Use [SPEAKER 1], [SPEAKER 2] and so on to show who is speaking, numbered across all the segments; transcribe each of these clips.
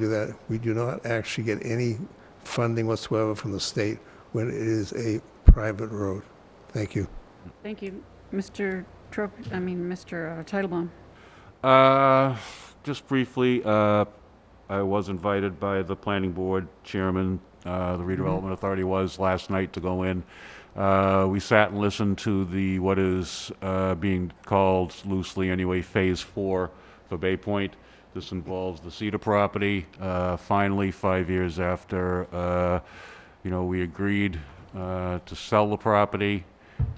[SPEAKER 1] do that. We do not actually get any funding whatsoever from the state when it is a private road. Thank you.
[SPEAKER 2] Thank you, Mr. Trop, I mean, Mr. Titlebaum.
[SPEAKER 3] Uh, Just briefly, uh, I was invited by the planning board chairman, uh, the redevelopment authority was last night to go in. Uh, We sat and listened to the, what is uh, being called loosely anyway, Phase Four for Bay Point. This involves the Cedar property. Uh, Finally, five years after, uh, you know, we agreed uh, to sell the property.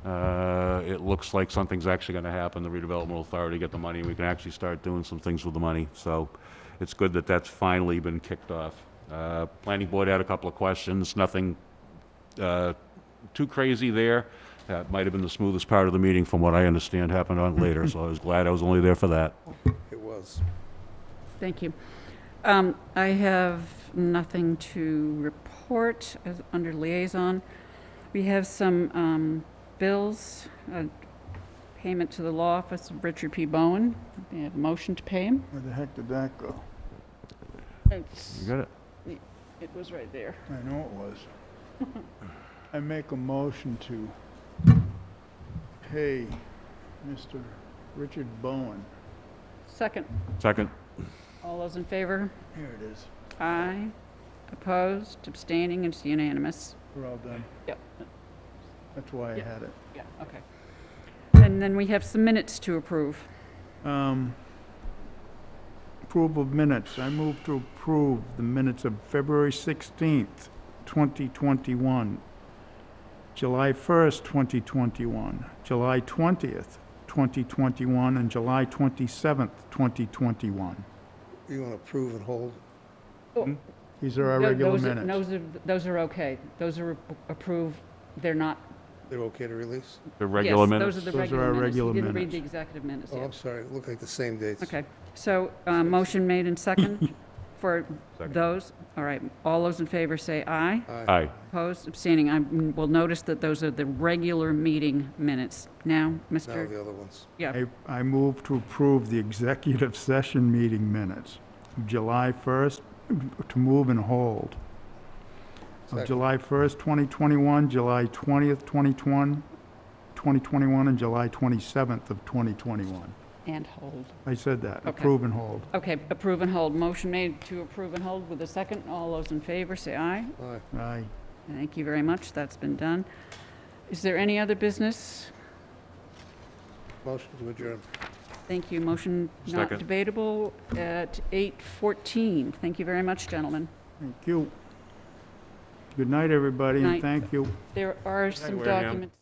[SPEAKER 3] Uh, It looks like something's actually going to happen, the redevelopment authority get the money, we can actually start doing some things with the money. So it's good that that's finally been kicked off. Uh, Planning board had a couple of questions, nothing uh, too crazy there. That might have been the smoothest part of the meeting, from what I understand, happened on later, so I was glad I was only there for that.
[SPEAKER 1] It was.
[SPEAKER 2] Thank you. Um, I have nothing to report as, under liaison. We have some, um, bills, uh, payment to the law office of Richard P. Bowen. They have a motion to pay him.
[SPEAKER 4] Where the heck did that go?
[SPEAKER 3] You got it?
[SPEAKER 2] It was right there.
[SPEAKER 4] I know it was. I make a motion to pay Mr. Richard Bowen.
[SPEAKER 2] Second,
[SPEAKER 3] Second?
[SPEAKER 2] all those in favor?
[SPEAKER 4] Here it is.
[SPEAKER 2] Aye. Opposed, abstaining, it's unanimous.
[SPEAKER 4] We're all done.
[SPEAKER 2] Yep.
[SPEAKER 4] That's why I
[SPEAKER 2] Yep.
[SPEAKER 4] had it.
[SPEAKER 2] Yeah, okay. And then we have some minutes to approve.
[SPEAKER 4] Um, Approval of minutes. I move to approve the minutes of February 16th, 2021, July 1st, 2021, July 20th, 2021, and July 27th, 2021.
[SPEAKER 1] You want to approve and hold?
[SPEAKER 4] These are our
[SPEAKER 2] Tho-
[SPEAKER 4] regular
[SPEAKER 2] those are-
[SPEAKER 4] minutes.
[SPEAKER 2] Those are, those are okay. Those are approved. They're not.
[SPEAKER 1] They're okay to release?
[SPEAKER 3] The regular
[SPEAKER 2] yes,
[SPEAKER 3] minutes?
[SPEAKER 2] Those are the
[SPEAKER 4] Those are
[SPEAKER 2] regular
[SPEAKER 4] our
[SPEAKER 2] minutes.
[SPEAKER 4] regular
[SPEAKER 2] You didn't read
[SPEAKER 4] minutes.
[SPEAKER 2] the executive minutes
[SPEAKER 1] Oh, I'm
[SPEAKER 2] yet.
[SPEAKER 1] sorry, it looked like the same dates.
[SPEAKER 2] Okay. So, uh, motion made and second for
[SPEAKER 3] Second.
[SPEAKER 2] those. All right. All those in favor say aye.
[SPEAKER 1] Aye.
[SPEAKER 3] Aye.
[SPEAKER 2] Opposed, abstaining. I will notice that those are the regular meeting minutes. Now,
[SPEAKER 1] Now
[SPEAKER 2] Mr.
[SPEAKER 1] the other ones.
[SPEAKER 2] Yeah,
[SPEAKER 4] I, I move to approve the executive session meeting minutes of July 1st, to move and hold. Of
[SPEAKER 1] Second.
[SPEAKER 4] July 1st, 2021, July 20th, 2021, 2021, and July 27th of 2021.
[SPEAKER 2] and hold.
[SPEAKER 4] I said that,
[SPEAKER 2] Okay.
[SPEAKER 4] approve and hold.
[SPEAKER 2] Okay, approve and hold. Motion made to approve and hold with a second. All those in favor say aye.
[SPEAKER 1] Aye.
[SPEAKER 4] Aye.
[SPEAKER 2] Thank you very much. That's been done. Is there any other business?
[SPEAKER 1] Motion to adjourn.
[SPEAKER 2] Thank you. Motion not
[SPEAKER 3] Second.
[SPEAKER 2] debatable at 8:14. Thank you very much, gentlemen.
[SPEAKER 4] Thank you. Good night, everybody, and
[SPEAKER 2] Night.
[SPEAKER 4] thank you.
[SPEAKER 2] There are some
[SPEAKER 3] Wareham.
[SPEAKER 2] documents.